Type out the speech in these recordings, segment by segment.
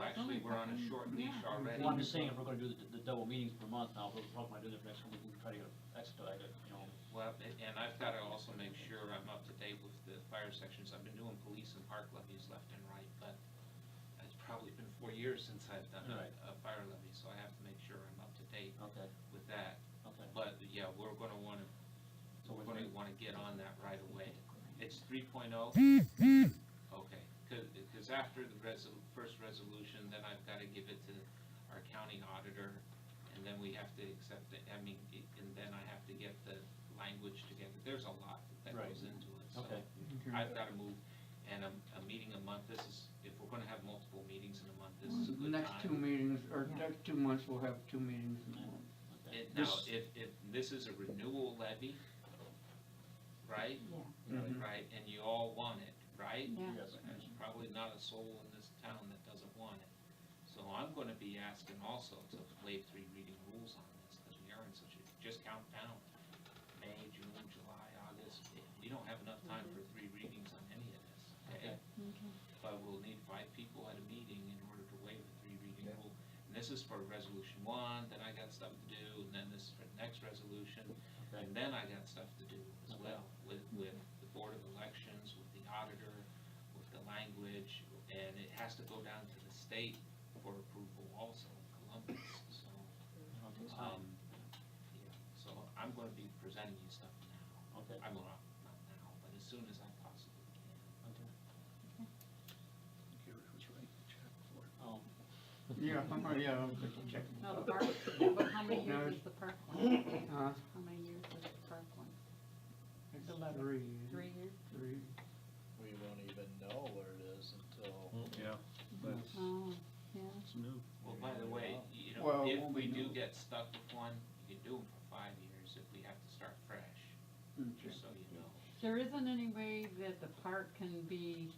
on a short leash already. Well, I'm just saying, if we're gonna do the, the double meetings per month now, we'll probably do the next one, we can try to expedite it, you know. Well, a- and I've got to also make sure I'm up to date with the fire sections. I've been doing police and park levies left and right, but it's probably been four years since I've done a, Right. a fire levy, so I have to make sure I'm up to date Okay, with that. okay. But, yeah, we're going to want to, So we're we're going gonna, to want to get on that right away. It's three oh? Okay, because after the resol, first resolution, then I've got to give it to our county auditor, and then we have to accept it, I mean, it- and then I have to get the language together. There's a lot that Right. goes into it, so okay, I've got to move. And a, a meeting a month, this is, if we're going to have multiple meetings in a month, this is a The good next two time. meetings, or Yeah. next two months, we'll have two meetings in a month. okay. It- Now, this- if, if this is a renewal levy, right? Yeah, Mhm. Right, and you all want it, right? yeah. Yes, There's probably not a soul in this town that doesn't want it. So I'm gonna be asking also to waive three reading rules on this, because we are in such a, just count down. May, June, July, August, we don't have enough time for three readings on any of this, okay? Okay. Okay. But we'll need five people at a meeting in order to waive the three reading Yeah. rule. And this is for resolution one, then I got stuff to do, and then this is for the next resolution, okay, and then I got stuff to do as Okay. well with, with the Board of Elections, with the auditor, with the language, and it has to go down to the state for approval also, Columbus, so, I'll take um, time, yeah, so I'm gonna be presenting you stuff now. okay, I will not, not now, but as soon as I possibly can. okay. Gary was right, check for it. Um, Yeah, I'm, right, yeah, I'm just checking. No, the park, but how many No, years was the park one? Huh? How many years was the park one? It's The letter. Three. Three years? Three. We won't even know what it is until. Yeah, that's, Oh, yeah. it's new. Well, by the way, you know, Well, if won't we we do know? get stuck with one, you can do them for five years if we have to start fresh, Okay. just so you know. There isn't any way that the park can be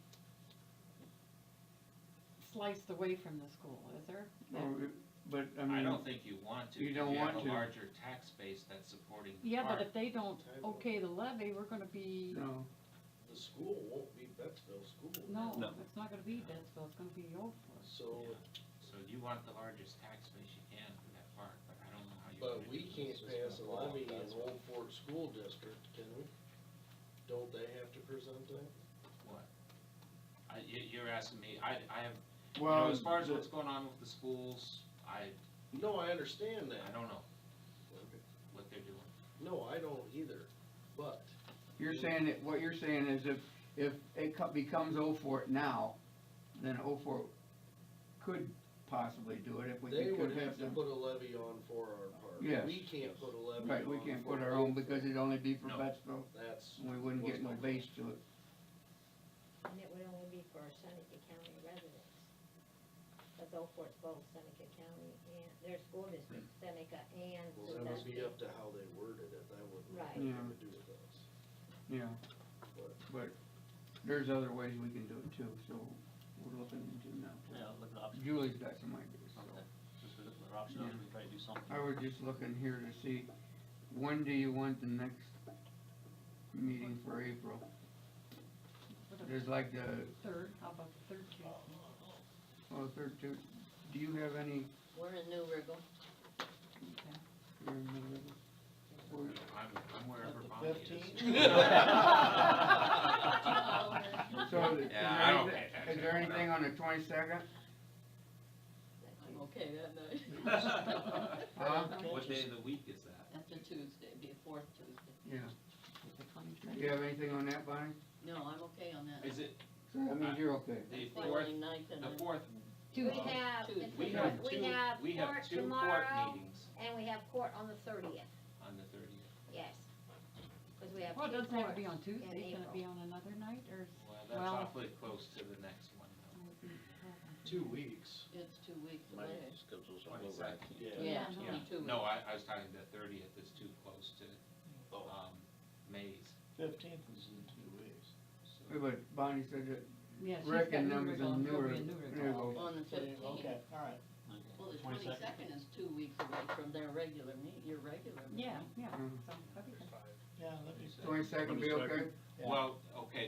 sliced away from the school, is there? Well, it- But, I mean. I don't think you want to. You don't 'cause want You to. have a larger tax base that's supporting the Yeah, park. but if they don't okay the levy, we're gonna be, No, The school won't be Betsville School. no, No. it's not gonna be Bensville, it's gonna be Old Forest. So, So you want the largest tax base you can for that park, but I don't know how you. but we can't pass a levy in Old Fort School District, can we? Don't they have to present that? What? I, you, you're asking me, I, I have, you know, well, as far as the- what's going on with the schools, I, No, I understand I that. don't know what they're doing. No, I don't either, but you're saying that, what you're saying is if, if it co- becomes O for it now, then O for it could possibly do it if we they could would could have have to them. put a levy on for our park. Yes. We can't put a levy on. Right, we can't put for our own Old because Fort. it'd only be for No. Betsville. That's. We wouldn't get no what's- base to it. And it would only be for Seneca County residents. But though for both Seneca County and, their school district, Seneca and Well, that would be Sandusky. up to how they worded it, that would. Right. Have to do with us. Yeah, But but there's other ways we can do it too, so we're looking into now. yeah, look at the options. Julie's got some ideas, so. Okay, just look at the options, we try to do something. I was just looking here to see, when do you want the next meeting for April? What about There's like the, the Third, how about the third Tuesday? oh, third, Tu- do you have any? We're in New Riggle. Okay. you're in the middle. Or- I'm, I'm wherever At the Bonnie is. 15? So, is Yeah, I don't there pay anything, is there attention. anything on the twenty-second? I'm okay that night. Huh? What day of the week is that? That's a Tuesday, it'd be a fourth Tuesday. Yeah, The do 23rd. you have anything on that, Bonnie? No, I'm okay on that. Is it So that means you're okay. Uh, the Fourth fourth, night and the I- fourth? We have, Tuesday. We have we have two, we have court two court tomorrow, meetings and we have court on the thirtieth, on the thirtieth. yes. Because we have two Well, it courts. doesn't have to be on in Tuesday, can it be April. on another night, or? Well, that's Well- awfully close to the next one, though. two weeks. It's two weeks My away. schedule's all over, I 22nd. can't. Yeah, Yeah. only two No, weeks. I, I was talking the thirtieth is too close to, Oh. um, May's. Fifteenth is in two weeks. Yeah, But Bonnie said that Yeah, she's Rick got and New them is in Riggle, it'll newer, be in New newer. Riggle. On the Okay, fifteenth. all right. Okay. Well, the twenty-second is two weeks away from their regular meet, your regular meet. Yeah, yeah, Mm. so that'd be good. Yeah, let me see. Twenty-second be okay? Yeah. Well, okay,